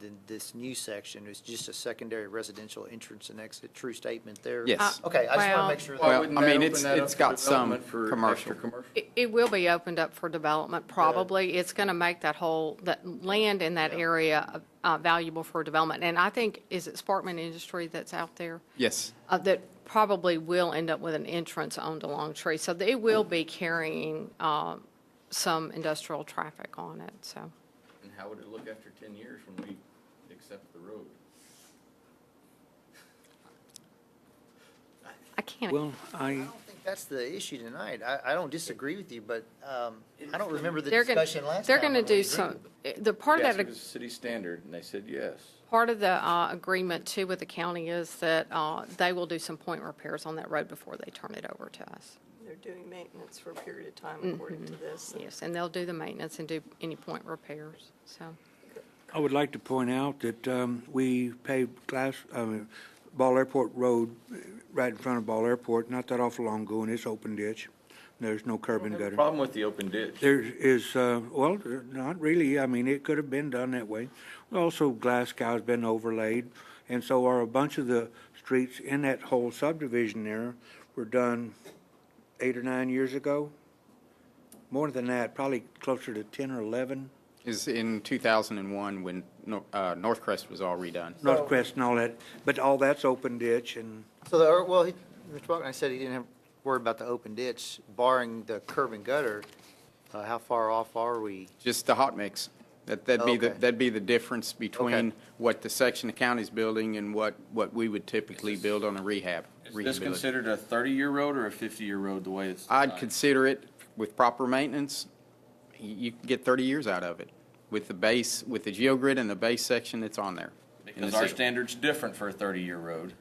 than this new section, it's just a secondary residential entrance and exit, true statement there? Yes. Uh, Okay, I just want Well- to make sure. Well, that I mean, it's- it's got some commercial. It, it will be opened up for development, probably. It's going to make that whole, that land in that area uh, valuable for development. And I think, is it Sparkman Industry that's out there? Yes. Uh, That probably will end up with an entrance onto Longtree. So they will be carrying um, some industrial traffic on it, so. And how would it look after ten years when we accept the road? I can't, Well, I, I don't think that's the issue tonight. I, I don't disagree with you, but um, I don't remember the they're going, discussion last time. they're going to when we do agreed some, eh, with it. the part Yes, that it was city standard, and they said yes. Part of the uh, agreement too with the county is that uh, they will do some point repairs on that road before they turn it over to us. They're doing maintenance for a period of time according to this. and Yes, and they'll do the maintenance and do any point repairs, so. I would like to point out that um, we paved Glass, I mean, Ball Airport Road, uh, right in front of Ball Airport, not that awful long ago, and it's open ditch. There's no curb and gutter. Problem with the open ditch. There is, uh, well, not really. I mean, it could have been done that way. Also, Glasgow's been overlaid, and so are a bunch of the streets in that whole subdivision there were done eight or nine years ago. More than that, probably closer to 10 or 11. Is in 2001 when Nor- uh, Northcrest was all redone. North Crest and all that, but all that's open ditch and, So, the- well, he- Mr. Buckner said he didn't have, worry about the open ditch, barring the curb and gutter. Uh, How far off are we? Just the hot mix. That, that'd be, the Okay. that'd be the difference between Okay. what the section of county's building and what, what we would typically build on a rehab. Is this rehabilit- considered a thirty-year road or a fifty-year road, the way it's I'd designed? consider it with proper maintenance, y- you can get 30 years out of it with the base, with the geogrid and the base section that's on there. in the Because our city. standard's different for a thirty-year road.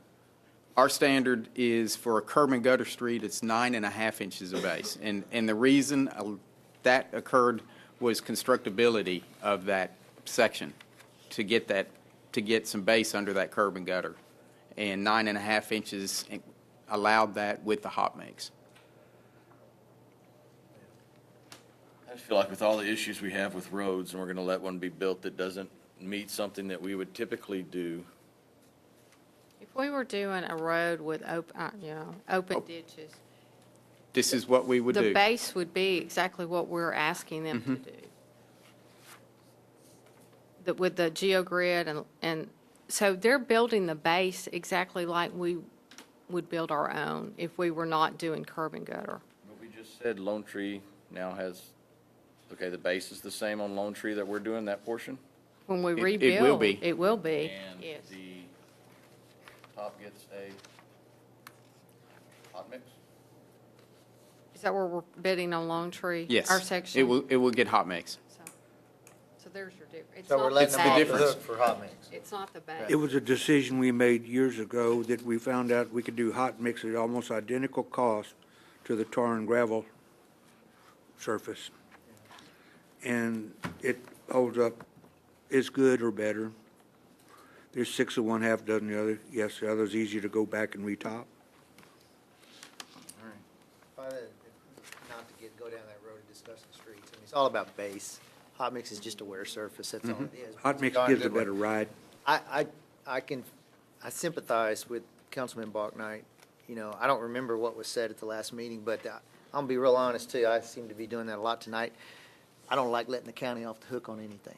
Our standard is for a curb and gutter street, it's nine and a half inches of base. And, and the reason uh, that occurred was constructability of that section to get that, to get some base under that curb and gutter. And nine and a half inches allowed that with the hot mix. I just feel like with all the issues we have with roads, and we're gonna let one be built that doesn't meet something that we would typically do. If we were doing a road with open, you know, open ditches, This is what Oh, we would do. Mm-hmm. the base would be exactly what we're asking them to do. The- With the GeoGrid and, and, so they're building the base exactly like we would build our own if we were not doing curb and gutter. But we just said Lone Tree now has, okay, the base is the same on Lone Tree that we're doing, that portion? When we It- rebuild. it will be. It will be, And yes. the top gets a hot mix? Is that where we're bidding on Longtree? Yes. Our section? It will, it will get hot mix. So so there's your difference. So we're letting them the off the difference. hook for hot mix. It's not the base. it was a decision we made years ago that we found out we could do hot mix at almost identical cost to the tar and gravel surface. And it holds up, as good or better. There's six of one, half dozen the other. Yes, the other's easier to go back and retop. If I- Not to get, go down that road and discuss the streets. I mean, it's all about base. Hot mix is just a wear surface, that's all it is. Mm-hmm. Hot mix Darn gives a good one. better ride. I, I, I can, I sympathize with Councilman Bachnight. You know, I don't remember what was said at the last meeting, but I- I'm gonna be real honest too, I seem to be doing that a lot tonight. I don't like letting the county off the hook on anything.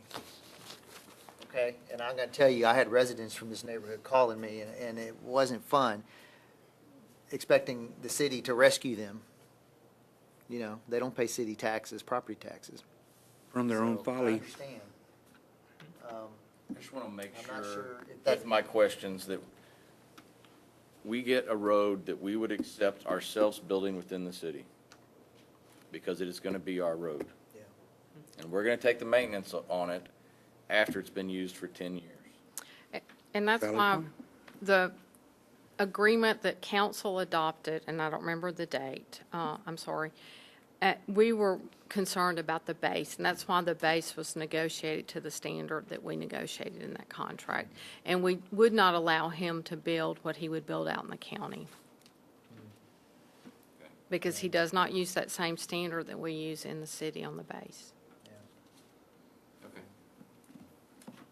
Okay, and I'm gonna tell you, I had residents from this neighborhood calling me and, and it wasn't fun expecting the city to rescue them. You know, they don't pay city taxes, property taxes. From their own So, I folly. understand. I just want to make I'm not sure sure, if that's- with my questions, that we get a road that we would accept ourselves building within the city, because it is going to be our road. Yeah. And we're going to take the maintenance on it after it's been used for 10 years. And that's Valid why point. the agreement that council adopted, and I don't remember the date, uh, I'm sorry, uh, we were concerned about the base, and that's why the base was negotiated to the standard that we negotiated in that contract. And we would not allow him to build what he would build out in the county. Mm. Because he does not use that same standard that we use in the city on the base.